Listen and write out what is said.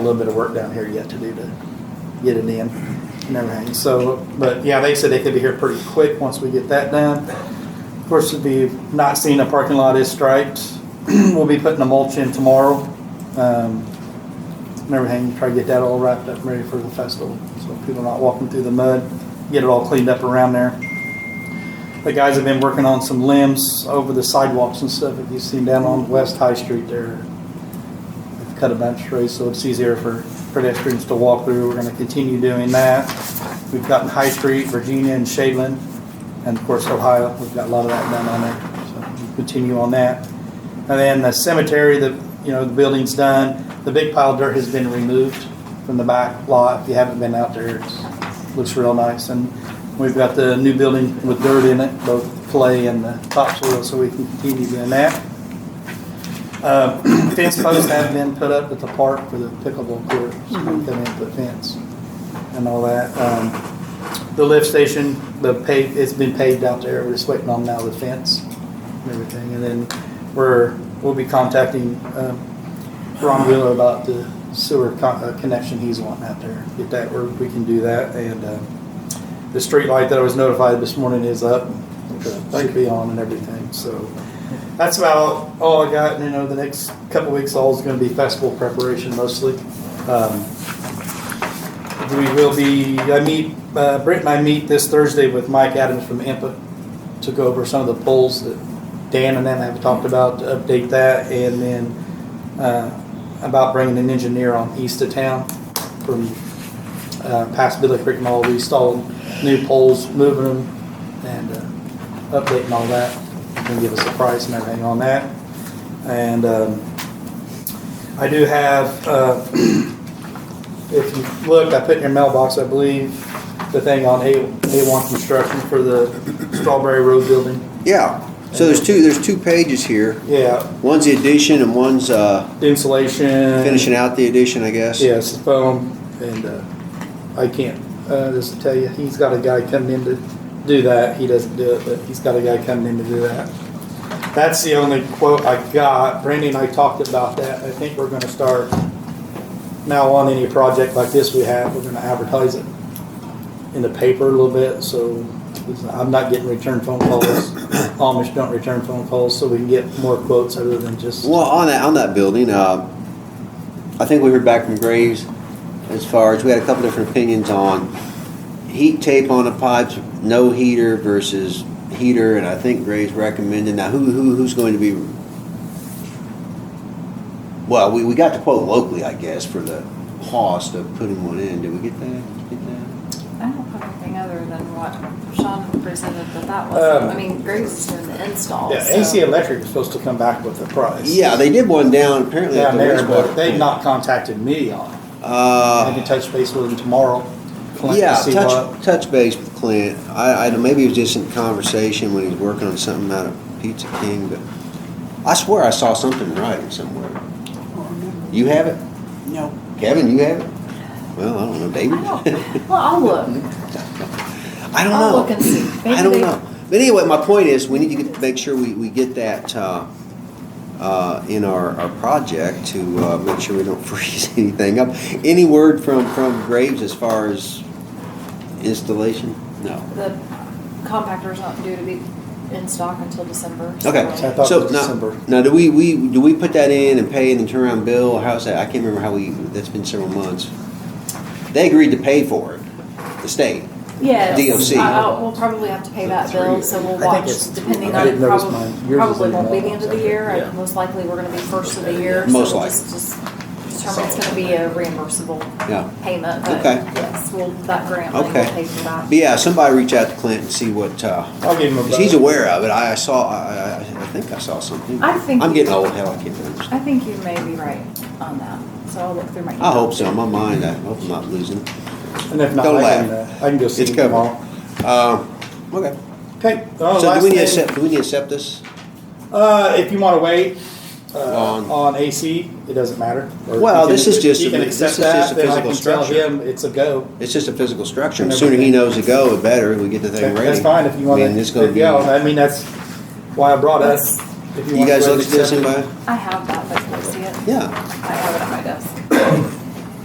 a little bit of work down here yet to do to get it in and everything. So, but yeah, they said they could be here pretty quick once we get that done. Of course, if you've not seen the parking lot is striped, we'll be putting the mulch in tomorrow. Um, and everything, try to get that all wrapped up and ready for the festival. So people not walking through the mud, get it all cleaned up around there. The guys have been working on some limbs over the sidewalks and stuff. If you've seen down on West High Street there, We've cut a bunch of trees so it's easier for pedestrians to walk through. We're gonna continue doing that. We've gotten High Street, Virginia and Shadeland, and of course Ohio. We've got a lot of that done on there, so we'll continue on that. And then the cemetery, the, you know, the building's done. The big pile of dirt has been removed from the back lot. If you haven't been out there, it looks real nice. And we've got the new building with dirt in it, both clay and the topsoil, so we can continue doing that. Uh, Fence posts have been put up at the park for the pickleball court, so we come in and put fence and all that. Um, The lift station, the pave, it's been paved out there, we're just waiting on now the fence and everything. And then we're, we'll be contacting um, Ron Wheeler about the sewer con- uh, connection he's wanting out there. Get that, where we can do that. And uh, the street light that I was notified this morning is up, should be on and everything, so. That's about all I got, you know, the next couple weeks, all is gonna be festival preparation mostly. Um, We will be, I meet, uh, Brent and I meet this Thursday with Mike Adams from IMPA to go over some of the polls that Dan and them have talked about, to update that, and then, uh, about bringing an engineer on east of town from, uh, past Billy Creek Mall, we installed new poles, moving them, and, uh, updating all that, and give us a price and everything on that. And, um, I do have, uh, if you look, I put in your mailbox, I believe, the thing on A, A1 construction for the Strawberry Road building. Yeah, so there's two, there's two pages here. Yeah, One's the addition and one's uh, insulation. finishing out the addition, I guess. Yes, foam, and uh, I can't, uh, just to tell you, he's got a guy coming in to do that. He doesn't do it, but he's got a guy coming in to do that. That's the only quote I got. Brandy and I talked about that. I think we're gonna start now on any project like this we have, we're gonna advertise it in the paper a little bit, so it's- I'm not getting return phone calls. Amish don't return phone calls, so we can get more quotes other than just, Well, on that, on that building, uh, I think we heard back from Graves as far as, we had a couple different opinions on heat tape on the pipes, no heater versus heater, and I think Graves recommended, now who, who, who's going to be? Well, we, we got the quote locally, I guess, for the cost of putting one in. Did we get that? Did you get that? I don't have anything other than what Sean presented, but that was, Um, I mean, Graves is doing the install. yeah, so- AC Electric is supposed to come back with a price. Yeah, they did one down apparently at down the there, wastewater. but they've not contacted me on it. I can Uh, touch base with them tomorrow. collect and yeah, see what- touch, touch base with Clint. I, I maybe it was just in conversation when he was working on something out of Pizza King, but I swear I saw something in writing somewhere. You have it? No. Kevin, you have it? Well, I don't know, I David. don't, well, I'll look. I don't I'll know. look and see. I Maybe don't they- know. But anyway, my point is, we need to get, make sure we, we get that, uh, uh, in our, our project to, uh, make sure we don't freeze anything up. Any word from, from Graves as far as installation? No. The compactor's not due to be in stock until December. so- Okay. So I thought So it was December. now, now, do we, we, do we put that in and pay it and turn around bill? or How's that? I can't remember how we, that's been several months. They agreed to pay for it, the state. Yes. DOC. I- I'll- We'll probably have to pay that bill, so we'll I think it's- watch, depending I on, didn't notice probably, mine. Yours is probably in the won't be the end mailbox, of the I think. year. I- Yeah. Most likely, we're gonna be first of the year. so Most we'll likely. just- just Determine it's gonna be a reimbursable Yeah. payment, but Okay. yes, well, that grant, thing will Okay. pay for that. But yeah, somebody reach out to Clint and see what, uh, I'll give them a. Because he's buzz. aware of it. I, I saw. I, I, I think I saw something. I think I'm you- getting old. Hell, I can't remember. I think you may be right on that, so I'll look through my. I hope so. In my mind, I hope I'm not losing. it. And if not, Don't I can, laugh. uh, I can go see It's them covered. tomorrow. Uh, okay. Okay. uh, So last do we need to thing, accept? Do we need to accept this? Uh, if you wanna wait, uh, On- on AC, it doesn't matter. Or if Well, you this can- is just You a- can this accept is just that, a then I physical can tell structure. him it's a go. It's just a physical structure. And And the sooner he everything. knows to go, the better. We get the thing ready. That's fine if you I wanna, mean, it's gonna be. yeah, I mean, that's why I brought us. if you wanna guys go ahead look at and this, accept it. anybody? I have that, but can I see it? Yeah. I have it on my desk.